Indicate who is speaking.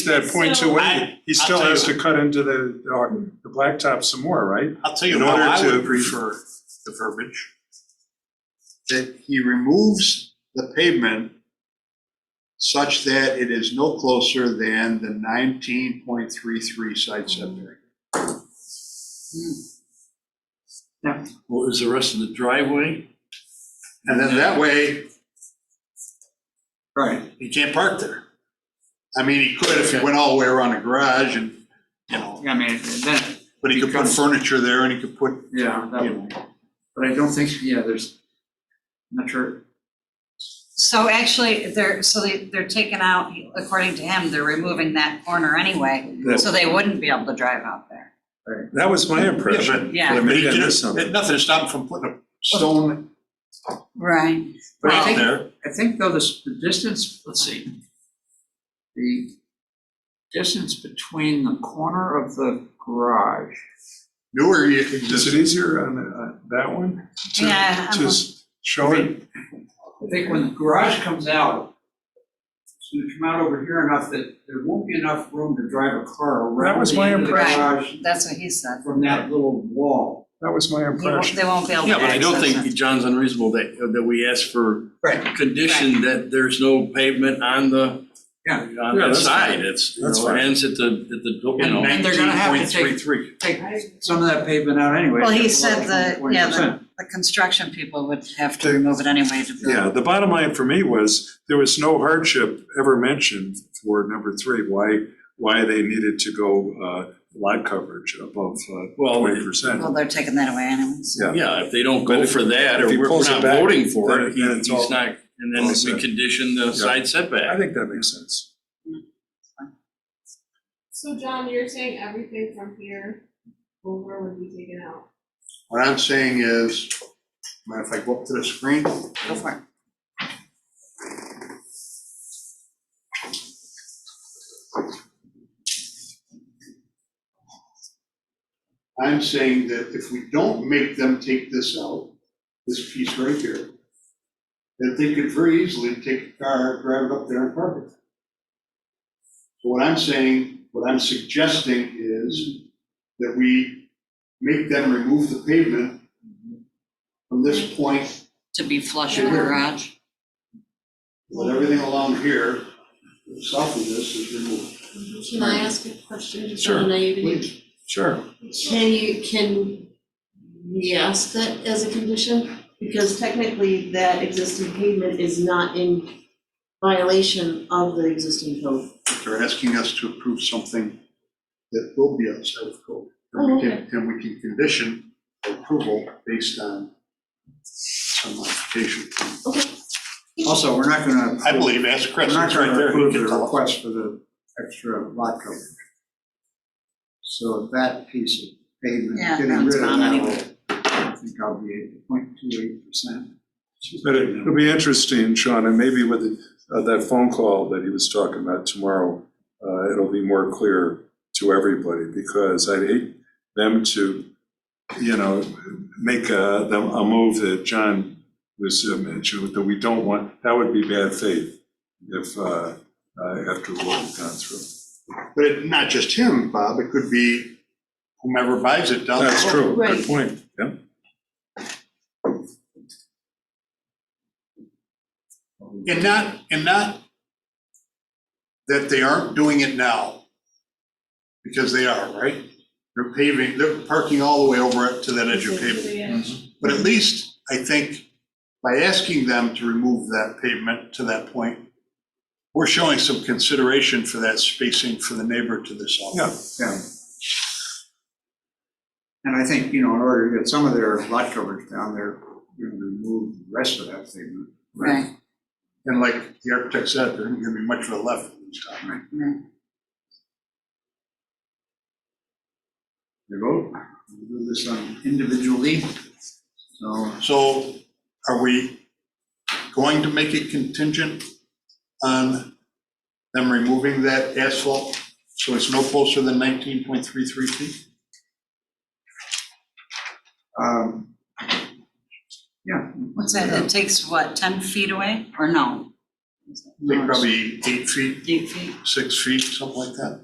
Speaker 1: That point two eight,
Speaker 2: I-
Speaker 1: he still
Speaker 2: tell you-
Speaker 1: has to cut into the, uh, the blacktop some more, right?
Speaker 2: I'll tell you
Speaker 1: In
Speaker 2: how
Speaker 1: order
Speaker 2: I
Speaker 1: to
Speaker 2: would,
Speaker 1: prefer,
Speaker 2: the verbiage, that he removes the pavement such that it is no closer than the nineteen point three three side setback.
Speaker 3: What was the rest of the driveway?
Speaker 2: And then that way,
Speaker 4: Right,
Speaker 2: he can't park there. I mean, he could if he went all the way around the garage and, you know,
Speaker 4: I mean, then,
Speaker 2: but he could put furniture there and he could put,
Speaker 4: yeah, that
Speaker 2: you
Speaker 4: would,
Speaker 2: know.
Speaker 4: but I don't think, yeah, there's, I'm not sure.
Speaker 5: So actually, they're, so they, they're taking out, according to him, they're removing that corner anyway,
Speaker 1: That-
Speaker 5: so they wouldn't be able to drive out there.
Speaker 1: that was my impression.
Speaker 5: Yeah.
Speaker 1: But I
Speaker 2: But he
Speaker 1: maybe I missed
Speaker 2: did,
Speaker 1: something.
Speaker 2: it- nothing to stop him from putting a stone
Speaker 5: Right.
Speaker 4: um, But I
Speaker 2: out
Speaker 4: think,
Speaker 2: there.
Speaker 4: I think though this, the distance, let's see. The distance between the corner of the garage,
Speaker 2: Newer, you can
Speaker 1: Is
Speaker 2: just,
Speaker 1: it easier on uh, that one? to-
Speaker 5: Yeah, I'm-
Speaker 1: To s- show it,
Speaker 4: I think when the garage comes out, it's gonna come out over here enough that there won't be enough room to drive a car around
Speaker 1: That was my
Speaker 4: the end of the
Speaker 5: impression.
Speaker 4: garage
Speaker 5: That's what he said.
Speaker 4: from that little wall.
Speaker 1: that was my
Speaker 5: He won't-
Speaker 1: impression.
Speaker 5: They won't be able to
Speaker 3: Yeah, but I don't
Speaker 5: access
Speaker 3: think John's unreasonable that, uh, that we ask for
Speaker 4: Right.
Speaker 3: condition that there's no pavement on the,
Speaker 4: Yeah.
Speaker 3: on
Speaker 1: Yeah,
Speaker 3: that
Speaker 1: that's fine.
Speaker 3: side. It's, you
Speaker 1: That's
Speaker 3: know,
Speaker 1: fine.
Speaker 3: it ends at the, at the, you
Speaker 4: And
Speaker 3: know.
Speaker 4: then they're gonna have to take-
Speaker 2: 19.33.
Speaker 4: Take some of that pavement out anyway.
Speaker 5: Well, he
Speaker 4: just
Speaker 5: said
Speaker 4: about
Speaker 5: the- yeah,
Speaker 4: 20%.
Speaker 5: the- The construction people would have to remove it anyway to build.
Speaker 1: Yeah, the bottom line for me was, there was no hardship ever mentioned for number three, why, why they needed to go, uh, lot coverage above uh,
Speaker 3: Well,
Speaker 1: twenty percent.
Speaker 5: Well, they're taking that away anyways.
Speaker 1: Yeah.
Speaker 3: yeah, if they don't go for that, or
Speaker 1: If he
Speaker 3: we're
Speaker 1: pulls
Speaker 3: we're
Speaker 1: it
Speaker 3: not
Speaker 1: back,
Speaker 3: voting for
Speaker 1: then
Speaker 3: it,
Speaker 1: it-
Speaker 3: he-
Speaker 1: then
Speaker 3: he's
Speaker 1: it's all-
Speaker 3: not, and then
Speaker 1: all
Speaker 3: we
Speaker 1: set.
Speaker 3: condition the side
Speaker 1: I
Speaker 3: setback.
Speaker 1: think that makes sense.
Speaker 6: So John, you're saying everything from here over would be taken out?
Speaker 2: What I'm saying is, mind if I go up to the screen?
Speaker 5: Go for it.
Speaker 2: I'm saying that if we don't make them take this out, this piece right here, that they could very easily take a car, drive it up there and park it. So what I'm saying, what I'm suggesting is that we make them remove the pavement from this point,
Speaker 5: To be flush with the
Speaker 6: Yeah.
Speaker 5: garage.
Speaker 2: let everything along here, south of this is removed.
Speaker 6: Can I ask a question just
Speaker 3: Sure.
Speaker 6: on naivety?
Speaker 3: Sure.
Speaker 6: Can you, can we ask that as a condition? Because technically that existing pavement is not in violation of the existing code.
Speaker 2: They're asking us to approve something that will be outside of code. And
Speaker 6: Oh,
Speaker 2: we can, and we can condition approval based on some modification.
Speaker 4: Also, we're not gonna.
Speaker 2: I believe, ask Chris,
Speaker 4: We're not
Speaker 2: it's right
Speaker 4: gonna
Speaker 2: there. he
Speaker 4: approve
Speaker 2: can
Speaker 4: the
Speaker 2: tell us.
Speaker 4: request for the extra lot coverage. So that piece of pavement,
Speaker 5: Yeah,
Speaker 4: getting
Speaker 5: that's
Speaker 4: rid of
Speaker 5: gone
Speaker 4: that,
Speaker 5: anyway.
Speaker 4: will- I think I'll be at point two eight percent.
Speaker 1: But it- it'll be interesting, Sean, and maybe with uh, that phone call that he was talking about tomorrow, uh, it'll be more clear to everybody, because I'd hate them to, you know, make a, them- a move that John was uh, mentioned, that we don't want, that would be bad faith if, uh, uh, after what we've gone through.
Speaker 2: But it- not just him, Bob, it could be whomever buys it down the road.
Speaker 1: That's true, good
Speaker 6: Right.
Speaker 1: point, yeah.
Speaker 2: And not, and not that they aren't doing it now, because they are, right? They're paving, they're parking all the way over to that edge of pavement. But at least, I think, by asking them to remove that pavement to that point, we're showing some consideration for that spacing for the neighbor to the south.
Speaker 1: Yeah.
Speaker 4: Yeah. And I think, you know, in order to get some of their lot coverage down there, you're gonna remove the rest of that pavement.
Speaker 5: Right,
Speaker 2: And like the architect said, there isn't gonna be much of a left this time.
Speaker 5: right.
Speaker 4: You vote, we'll do this on individually, so.
Speaker 2: So are we going to make it contingent on them removing that asphalt? So it's no closer than nineteen point three three feet?
Speaker 4: Um, Yeah.
Speaker 5: What's that, it takes what, ten feet away, or no?
Speaker 2: They probably eight feet,
Speaker 5: Eight feet.
Speaker 2: six feet, something like that.